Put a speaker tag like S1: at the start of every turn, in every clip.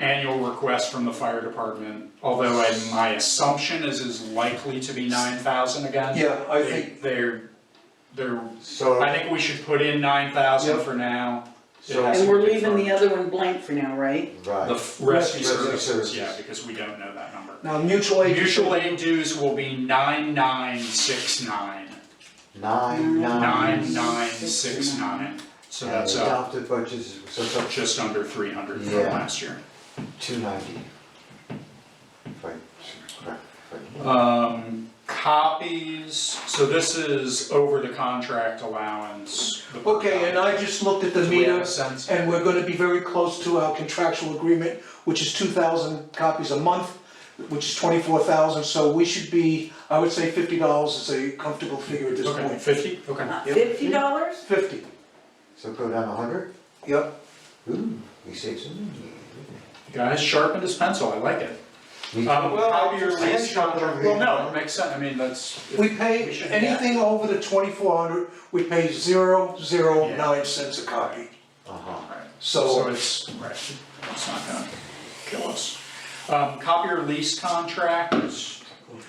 S1: annual request from the fire department, although I, my assumption is is likely to be nine thousand again.
S2: Yeah, I
S1: They-
S2: think,
S1: They're, they're,
S3: So,
S1: I think we should put in nine thousand
S2: Yep.
S1: for now,
S3: so,
S1: Yes,
S4: And we're
S1: we
S4: leaving the other one blank for now, right?
S1: the
S3: right,
S1: f- rescue
S3: Rescue
S1: services,
S3: services.
S1: yeah, because we don't know that number.
S2: now mutual aid.
S1: Mutual aid dues will be nine nine six nine,
S3: nine, nine.
S1: nine nine six nine, so
S3: And
S1: that's uh, up
S3: adopted budget is, so it's up
S1: just under three hundred from
S3: Yeah.
S1: last year.
S3: two ninety. If I, correct, if
S1: Um, copies, so this is over the contract allowance. the-
S2: Okay, and I just looked at the
S1: Do we have
S2: meter,
S1: a sense?
S2: and we're gonna be very close to our contractual agreement, which is two thousand copies a month, which is twenty-four thousand, so we should be, I would say fifty dollars is a comfortable figure at this
S1: Okay,
S2: point.
S1: fifty, okay.
S4: Uh, Fifty dollars?
S2: Fifty,
S3: So go down a hundred,
S2: yep,
S3: ooh, we saved some.
S1: Guys sharpened his pencil, I like it.
S3: We-
S1: Um,
S3: Well,
S1: copy your
S3: I
S1: lease
S3: am trying to
S1: contract-
S3: read
S1: well, no,
S3: one.
S1: it makes sense, I mean, that's.
S2: we pay,
S1: should get-
S2: anything over the twenty-four hundred, we pay zero, zero, nine cents a copy,
S3: Uh-huh,
S1: Right. So
S2: so,
S1: it's, right, it's not gonna kill us. Um, copy your lease contracts,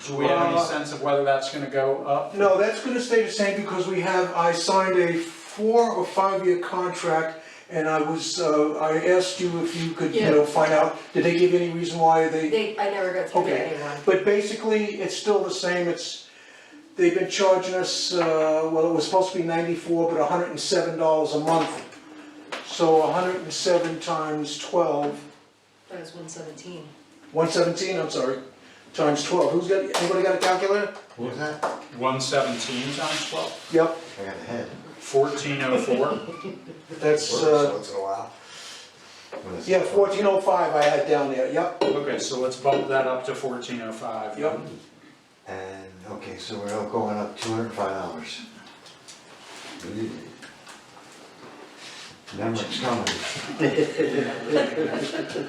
S1: do we have any
S2: Uh,
S1: sense of whether that's gonna go up?
S2: no, that's gonna stay the same because we have, I signed a four or five-year contract, and I was, uh, I asked you if you could, you know, find out, did they give any reason why they
S5: They, I never got through to
S2: Okay.
S5: anyone.
S2: But basically, it's still the same, it's, they've been charging us, uh, well, it was supposed to be ninety-four, but hundred and seven dollars a month. So hundred and seven times twelve,
S5: That was one seventeen.
S2: one seventeen, I'm sorry, times twelve, who's got, anybody got a calculator?
S3: what was that? I
S1: One seventeen times twelve,
S2: Yep,
S3: got a head.
S1: fourteen oh four.
S2: that's,
S3: Works
S2: uh,
S3: Once in a while. When it's-
S2: yeah, fourteen oh five I had down there, yep,
S1: Okay, so let's bump that up to fourteen oh five.
S2: yep.
S3: And, okay, so we're all going up two hundred and five dollars. Number's coming.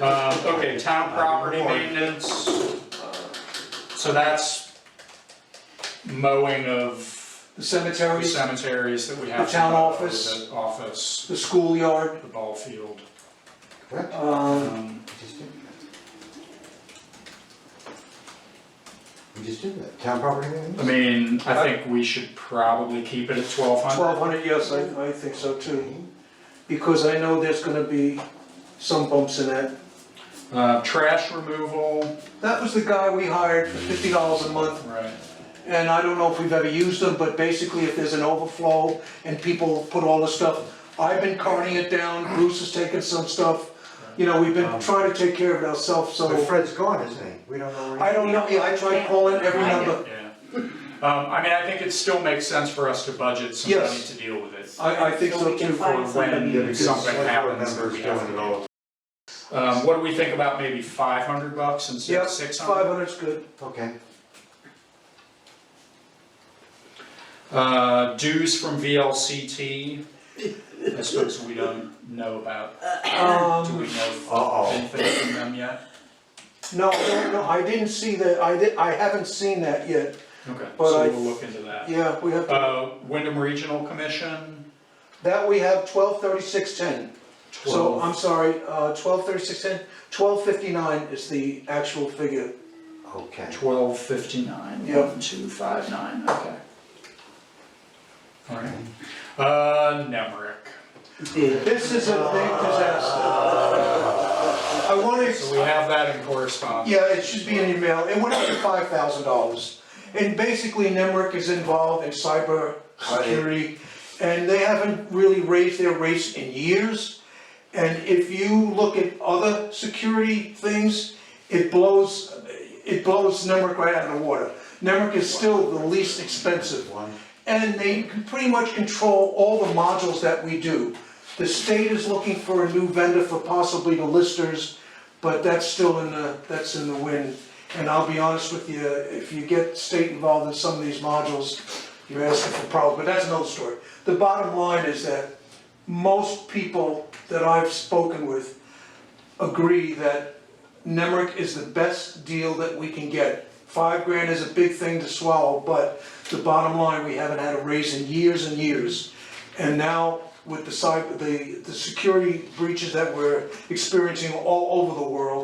S1: Uh, okay, town property maintenance, so that's mowing of
S2: The
S1: the
S2: cemeteries,
S1: cemeteries that we have.
S2: The town
S1: to mow,
S2: office.
S1: the Office,
S2: the schoolyard,
S1: the ball field.
S3: Correct?
S2: um,
S1: Um,
S3: We just did that. We just did that, town property
S1: I
S3: maintenance?
S1: mean, I think we should probably keep it at twelve hundred.
S2: twelve hundred, yes, I, I think so too. Because I know there's gonna be some bumps in that.
S1: Uh, trash removal,
S2: That was the guy we hired for fifty dollars a month,
S1: right,
S2: and I don't know if we've ever used them, but basically if there's an overflow and people put all the stuff, I've been carting it down, Bruce has taken some stuff. You know, we've been trying to take care of it ourselves,
S3: But
S2: so
S3: Fred's gone, isn't he? We don't know where he
S2: I don't know, yeah, I tried calling every number.
S1: yeah. Um, I mean, I think it still makes sense for us to budget some money
S2: Yes.
S1: to deal with it.
S2: I, I think so too.
S1: For
S5: somebody.
S3: Yeah,
S1: when
S3: because
S1: something
S3: select board
S1: happens that
S3: members
S1: we have
S3: don't
S1: to
S3: know.
S1: deal with. Um, what do we think about maybe five hundred bucks instead
S2: Yeah,
S1: of six
S2: Five
S1: hundred?
S2: hundred's good.
S3: Okay,
S1: Uh, dues from VLCT, I suppose we don't know about, do
S2: Um,
S1: we know
S3: Uh-oh.
S1: anything from them yet?
S2: no, no, no, I didn't see that, I did, I haven't seen that yet.
S1: Okay,
S2: But I-
S1: so we'll look into that.
S2: Yeah, we have,
S1: Uh, Wyndham Regional Commission,
S2: that we have twelve thirty-six ten. So, I'm
S1: twelve,
S2: sorry, uh, twelve thirty-six ten, twelve fifty-nine is the actual figure.
S3: okay.
S1: twelve fifty-nine,
S2: Yep.
S1: one, two, five, nine, okay. Alright, uh, Nemrick.
S2: This is a big disaster. I wanna,
S1: So we have that in correspondence.
S2: yeah, it should be in your mail, it went up to five thousand dollars. And basically, NEMRIC is involved in cyber security, and they haven't really raised their rates in years. And if you look at other security things, it blows, it blows NEMRIC right out of the water. NEMRIC is still the least expensive
S3: One,
S2: and they can pretty much control all the modules that we do. The state is looking for a new vendor for possibly the listers, but that's still in the, that's in the wind. And I'll be honest with you, if you get state involved in some of these modules, you're asking for problems, but that's another story. The bottom line is that most people that I've spoken with agree that Nemrick is the best deal that we can get. Five grand is a big thing to swallow, but the bottom line, we haven't had a raise in years and years. And now with the cyber, the, the security breaches that we're experiencing all over the world.